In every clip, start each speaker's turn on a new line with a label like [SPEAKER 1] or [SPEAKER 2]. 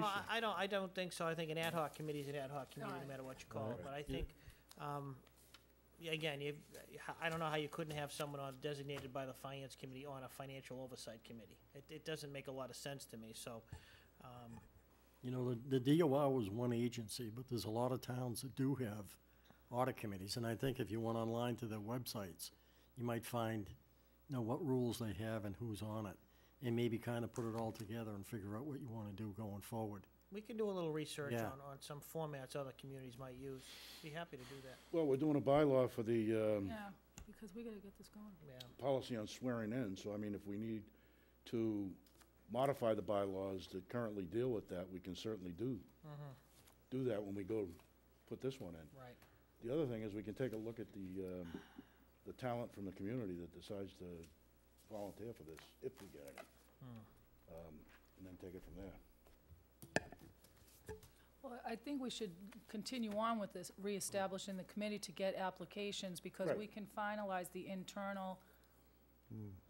[SPEAKER 1] No, I I don't, I don't think so. I think an ad hoc committee is an ad hoc committee, no matter what you call it. But I think, um, yeah, again, you, I don't know how you couldn't have someone on, designated by the finance committee on a financial oversight committee. It, it doesn't make a lot of sense to me, so, um,
[SPEAKER 2] You know, the, the DOR was one agency, but there's a lot of towns that do have audit committees, and I think if you went online to their websites, you might find, you know, what rules they have and who's on it, and maybe kind of put it all together and figure out what you want to do going forward.
[SPEAKER 1] we can do a little research
[SPEAKER 2] Yeah.
[SPEAKER 1] on, on some formats other communities might use. Be happy to do that,
[SPEAKER 3] Well, we're doing a bylaw for the um,
[SPEAKER 4] Yeah, because we gotta get this going.
[SPEAKER 1] yeah.
[SPEAKER 3] policy on swearing in, so I mean, if we need to modify the bylaws that currently deal with that, we can certainly do,
[SPEAKER 1] Mm-hmm.
[SPEAKER 3] do that when we go put this one in.
[SPEAKER 1] Right.
[SPEAKER 3] The other thing is, we can take a look at the, um, the talent from the community that decides to volunteer for this, if we get any.
[SPEAKER 1] Hmm.
[SPEAKER 3] Um, And then take it from there.
[SPEAKER 4] Well, I think we should continue on with this, reestablishing the committee to get applications, because we
[SPEAKER 3] Right. Mm.
[SPEAKER 4] can finalize the internal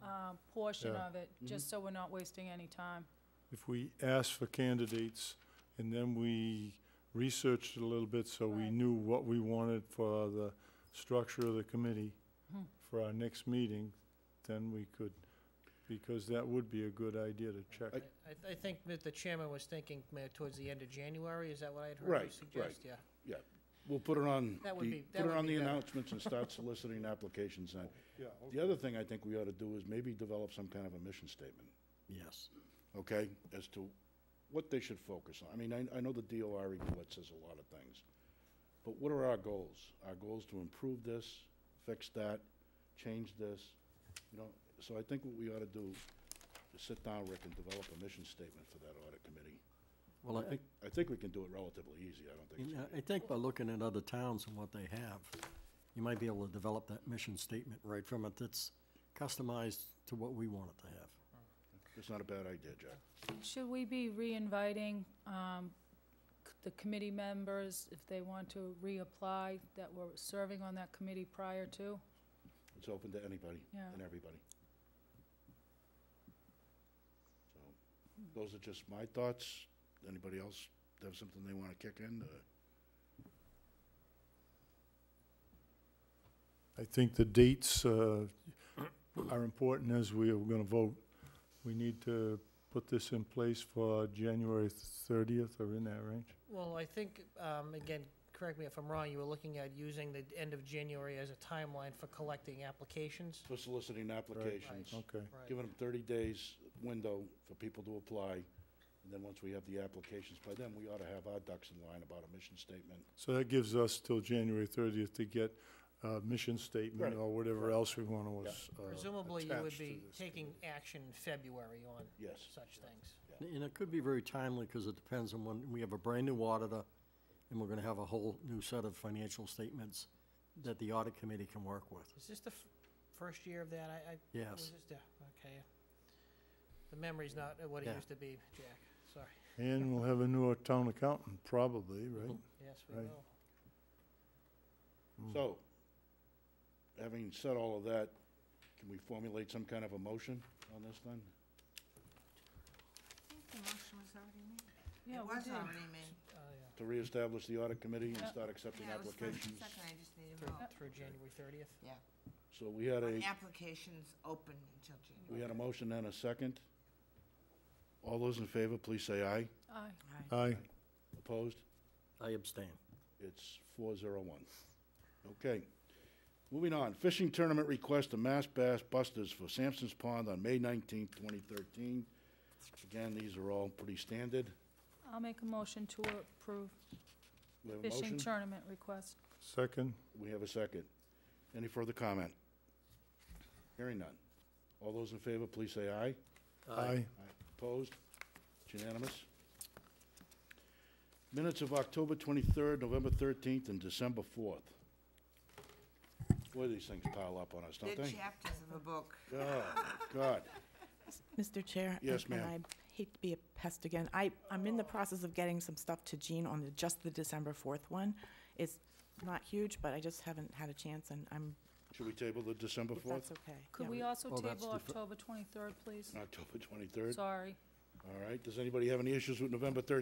[SPEAKER 4] uh, portion
[SPEAKER 5] Yeah.
[SPEAKER 4] of it, just so we're not wasting any time.
[SPEAKER 5] If we asked for candidates, and then we researched it a little bit, so we
[SPEAKER 4] Right.
[SPEAKER 5] knew what we wanted for the structure of the committee for our next meeting, then we could, because that would be a good idea to check.
[SPEAKER 1] I, I think that the chairman was thinking uh, towards the end of January, is that what I had heard
[SPEAKER 3] Right,
[SPEAKER 1] you
[SPEAKER 3] right.
[SPEAKER 1] suggest? Yeah.
[SPEAKER 3] Yeah, we'll put it on,
[SPEAKER 1] That would
[SPEAKER 3] the-
[SPEAKER 1] be- that
[SPEAKER 3] put it
[SPEAKER 1] would
[SPEAKER 3] on
[SPEAKER 1] be
[SPEAKER 3] the
[SPEAKER 1] better.
[SPEAKER 3] announcements and start soliciting applications then.
[SPEAKER 5] Yeah,
[SPEAKER 3] The other thing I think we ought to do is maybe develop some kind of a mission statement,
[SPEAKER 2] Yes.
[SPEAKER 3] okay, as to what they should focus on. I mean, I, I know the DOR report says a lot of things, but what are our goals? Our goals to improve this, fix that, change this, you know? So I think what we ought to do is sit down, Rick, and develop a mission statement for that audit committee.
[SPEAKER 2] Well,
[SPEAKER 3] I
[SPEAKER 2] I,
[SPEAKER 3] think, I think we can do it relatively easy, I don't think it's
[SPEAKER 2] and
[SPEAKER 3] gonna
[SPEAKER 2] I-
[SPEAKER 3] be
[SPEAKER 2] I think by looking at other towns and what they have, you might be able to develop that mission statement right from it that's customized to what we want it to have.
[SPEAKER 3] It's not a bad idea, Jack.
[SPEAKER 4] Should we be re-inviting um, c- the committee members, if they want to reapply, that were serving on that committee prior to?
[SPEAKER 3] It's open to anybody
[SPEAKER 4] Yeah.
[SPEAKER 3] and everybody. So, those are just my thoughts. Anybody else have something they want to kick in? Uh,
[SPEAKER 5] I think the dates uh, are important as we are going to vote. We need to put this in place for January 30th, or in that range.
[SPEAKER 1] Well, I think, um, again, correct me if I'm wrong, you were looking at using the end of January as a timeline for collecting applications?
[SPEAKER 3] For soliciting applications,
[SPEAKER 5] Okay.
[SPEAKER 1] Right.
[SPEAKER 3] giving them 30 days window for people to apply. And then once we have the applications, by then, we ought to have our ducks in line about a mission statement.
[SPEAKER 5] So that gives us till January 30th to get a mission statement
[SPEAKER 3] Right.
[SPEAKER 5] or whatever else we uh, want to attach
[SPEAKER 1] Presumably, you would
[SPEAKER 5] to
[SPEAKER 1] be
[SPEAKER 5] this.
[SPEAKER 1] taking action in February on
[SPEAKER 3] Yes.
[SPEAKER 1] such things.
[SPEAKER 2] And it could be very timely, because it depends on when, we have a brand-new auditor, and we're gonna have a whole new set of financial statements that the audit committee can work with.
[SPEAKER 1] Is this the f- first year of that? I, I. was
[SPEAKER 2] Yes.
[SPEAKER 1] this the- Okay. The memory's not what it
[SPEAKER 2] Yeah.
[SPEAKER 1] used to be, Jack. Sorry.
[SPEAKER 5] And we'll have a new town accountant, probably, right?
[SPEAKER 1] Yes, we
[SPEAKER 5] Right.
[SPEAKER 1] will.
[SPEAKER 3] So, having said all of that, can we formulate some kind of a motion on this then?
[SPEAKER 6] The motion was already made.
[SPEAKER 4] Yeah,
[SPEAKER 6] It
[SPEAKER 4] we
[SPEAKER 6] was
[SPEAKER 4] did.
[SPEAKER 6] already made.
[SPEAKER 1] Oh, yeah.
[SPEAKER 3] To reestablish the audit committee and
[SPEAKER 4] Yeah.
[SPEAKER 3] start accepting
[SPEAKER 6] Uh, Yeah, it was first and
[SPEAKER 3] applications?
[SPEAKER 6] Second, I just needed a
[SPEAKER 1] Through,
[SPEAKER 6] vote.
[SPEAKER 1] through January thirtieth.
[SPEAKER 6] Yeah.
[SPEAKER 3] So we had a,
[SPEAKER 6] The application's open until January.
[SPEAKER 3] we had a motion and a second. All those in favor, please say aye.
[SPEAKER 4] Aye.
[SPEAKER 5] Aye.
[SPEAKER 3] Opposed?
[SPEAKER 2] I abstain.
[SPEAKER 3] It's four zero one. Okay. Moving on, fishing tournament request to Mass Bass Busters for Sampson's Pond on May nineteenth, twenty thirteen. Again, these are all pretty standard.
[SPEAKER 4] I'll make a motion to approve
[SPEAKER 3] We have a
[SPEAKER 4] fishing
[SPEAKER 3] motion?
[SPEAKER 4] tournament request.
[SPEAKER 5] Second?
[SPEAKER 3] We have a second. Any further comment? Hearing none. All those in favor, please say aye.
[SPEAKER 5] Aye.
[SPEAKER 3] Aye. Opposed? It's unanimous. Minutes of October 23rd, November 13th, and December 4th. Boy, these things pile up on us, don't
[SPEAKER 6] They're
[SPEAKER 3] they?
[SPEAKER 6] chapters of a book.
[SPEAKER 3] Oh, God.
[SPEAKER 7] Mr. Chair?
[SPEAKER 3] Yes,
[SPEAKER 7] and-
[SPEAKER 3] ma'am.
[SPEAKER 7] And I hate to be a pest again. I, I'm in the process of getting some stuff to Jean on the, just the December 4th one. It's not huge, but I just haven't had a chance, and I'm,
[SPEAKER 3] Should we table the December
[SPEAKER 7] if that's
[SPEAKER 3] 4th?
[SPEAKER 7] okay.
[SPEAKER 4] Could
[SPEAKER 7] Yeah.
[SPEAKER 4] we also
[SPEAKER 2] Well, that's
[SPEAKER 4] table
[SPEAKER 2] defer-
[SPEAKER 4] October 23rd, please?
[SPEAKER 3] October 23rd?
[SPEAKER 4] Sorry.
[SPEAKER 3] All right. Does anybody have any issues with November 13th?